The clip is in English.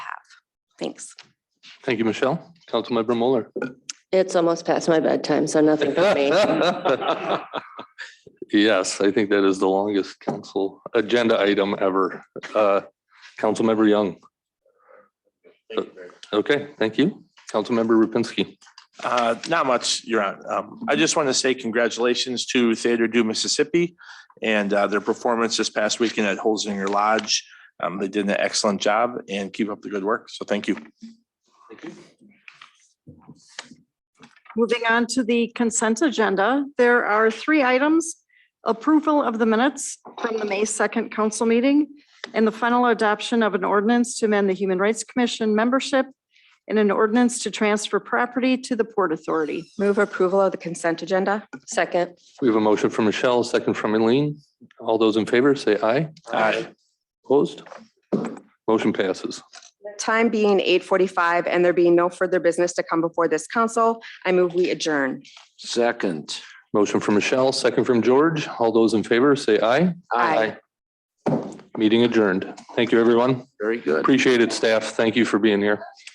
Thanks. Thank you, Michelle. Councilmember Mueller. It's almost past my bedtime, so nothing for me. Yes, I think that is the longest council agenda item ever. Uh, Councilmember Young. Okay, thank you. Councilmember Rupinsky. Uh, Not much, Your Honor. Um, I just want to say congratulations to Theater Do Mississippi and uh, their performance this past weekend at Holzinger Lodge. Um, They did an excellent job and keep up the good work. So thank you. Moving on to the consent agenda, there are three items. Approval of the minutes from the May 2nd council meeting and the final adoption of an ordinance to amend the Human Rights Commission membership and an ordinance to transfer property to the Port Authority. Move approval of the consent agenda. Second. We have a motion from Michelle, a second from Eileen. All those in favor, say aye. Aye. Opposed? Motion passes. Time being eight forty-five and there being no further business to come before this council, I move we adjourn. Second. Motion from Michelle, second from George. All those in favor, say aye. Aye. Meeting adjourned. Thank you, everyone. Very good. Appreciate it, staff. Thank you for being here.